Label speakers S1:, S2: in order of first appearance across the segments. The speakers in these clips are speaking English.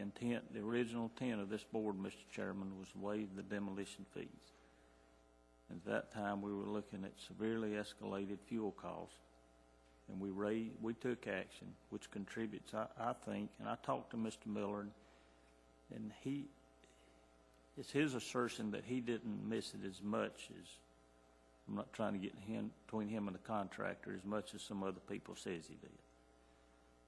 S1: intent, the original intent of this board, Mr. Chairman, was to waive the demolition fees. At that time, we were looking at severely escalated fuel costs, and we raised, we took action, which contributes, I, I think, and I talked to Mr. Miller, and- and he, it's his assertion that he didn't miss it as much as, I'm not trying to get him, between him and the contractor, as much as some other people says he did.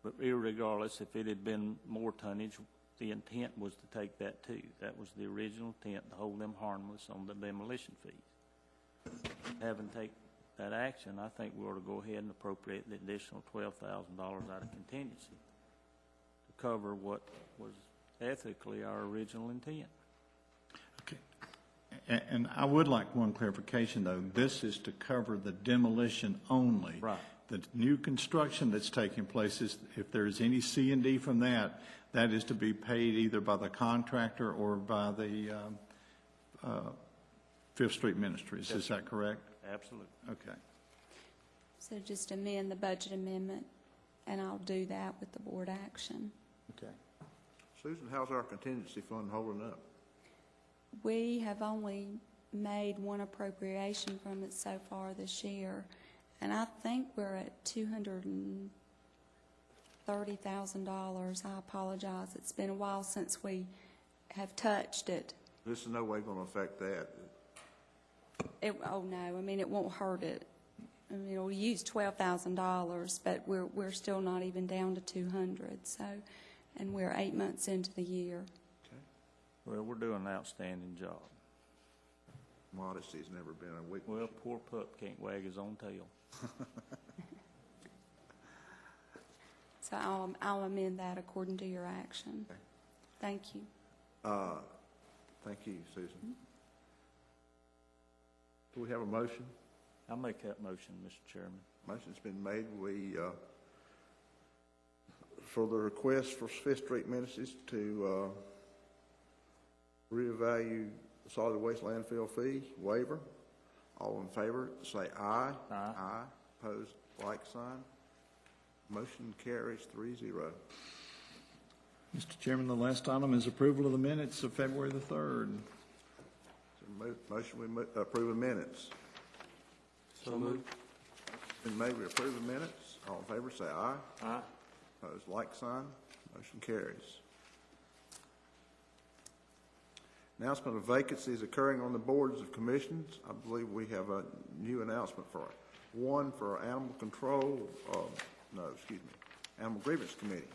S1: But irregardless, if it had been more tonnage, the intent was to take that too. That was the original intent, to hold them harmless on the demolition fees. Having take that action, I think we ought to go ahead and appropriate the additional twelve thousand dollars out of contingency to cover what was ethically our original intent.
S2: Okay. A- And I would like one clarification, though. This is to cover the demolition only.
S1: Right.
S2: The new construction that's taking place is, if there's any C and D from that, that is to be paid either by the contractor or by the um, uh, Fifth Street Ministries. Is that correct?
S1: Absolutely.
S2: Okay.
S3: So just amend the budget amendment, and I'll do that with the board action.
S2: Okay.
S4: Susan, how's our contingency fund holding up?
S3: We have only made one appropriation from it so far this year, and I think we're at two hundred and thirty thousand dollars. I apologize, it's been a while since we have touched it.
S4: This is no way gonna affect that.
S3: It, oh, no, I mean, it won't hurt it. I mean, it'll use twelve thousand dollars, but we're, we're still not even down to two hundred, so, and we're eight months into the year.
S1: Well, we're doing an outstanding job.
S4: Modesty's never been a weak.
S1: Well, poor pup can't wag his own tail.
S3: So I'll, I'll amend that according to your action. Thank you.
S4: Uh, thank you, Susan. Do we have a motion?
S1: I'll make that motion, Mr. Chairman.
S4: Motion's been made, we, uh, for the request for Fifth Street Ministries to, uh, reevaluate the solid waste landfill fee waiver. All in favor, say aye.
S1: Aye.
S4: Aye, opposed, like sign. Motion carries three zero.
S2: Mr. Chairman, the last item is approval of the minutes of February the 3rd.
S4: Mo- Motion, we mo- approve the minutes.
S1: So moved.
S4: Been made, we approve the minutes. All in favor, say aye. Aye. Opposed, like sign. Motion carries. Announcement of vacancies occurring on the boards of commissions. I believe we have a new announcement for, one for Animal Control, uh, no, excuse me, Animal Grievance Committee.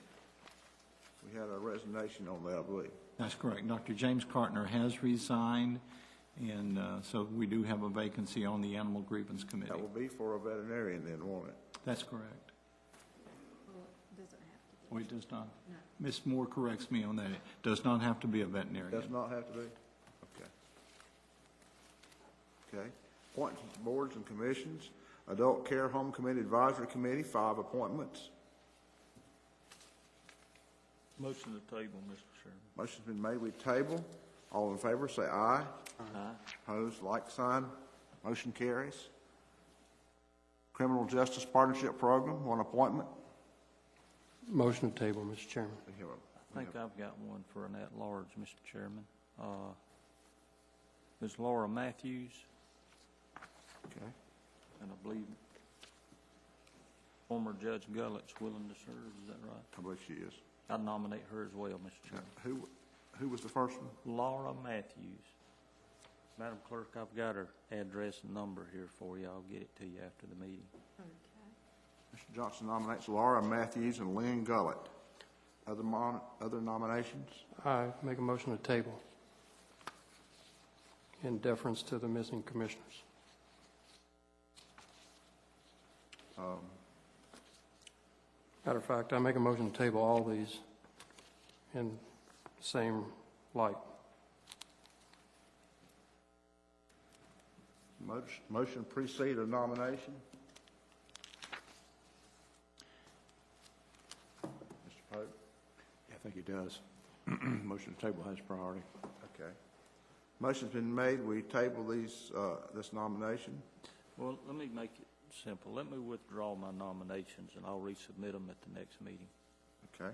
S4: We had a resignation on that, I believe.
S2: That's correct. Dr. James Cartner has resigned, and uh, so we do have a vacancy on the Animal Grievance Committee.
S4: That will be for a veterinarian then, won't it?
S2: That's correct. Well, it does not. Ms. Moore corrects me on that. It does not have to be a
S4: Does
S2: veterinarian.
S4: not have to be? Okay. Okay. Appointments to boards and commissions. Adult Care Home Committee Advisory Committee, five appointments.
S1: Motion to table, Mr. Chairman.
S4: Motion's been made, we table. All in favor, say aye. Aye. Opposed, like sign. Motion carries. Criminal Justice Partnership Program, one appointment.
S5: Motion to table, Mr. Chairman.
S4: We have a-
S1: I think I've got one for an at-large, Mr. Chairman. Uh, Ms. Laura Matthews,
S4: Okay.
S1: and I believe former Judge Gullett's willing to serve, is that right?
S4: I believe she is.
S1: I nominate her as well, Mr. Chairman.
S4: Who, who was the first one?
S1: Laura Matthews. Madam Clerk, I've got her address and number here for you. I'll get it to you after the meeting.
S4: Mr. Johnson nominates Laura Matthews and Lynn Gullett. Other mon, other nominations?
S5: I make a motion to table in deference to the missing commissioners. Matter of fact, I make a motion to table all these in the same light.
S4: Motion- Motion precede a nomination. Mr. Pope?
S6: I think it does. Motion to table has priority.
S4: Okay. Motion's been made, we table these, uh, this nomination.
S1: Well, let me make it simple. Let me withdraw my nominations, and I'll resubmit them at the next meeting.
S4: Okay.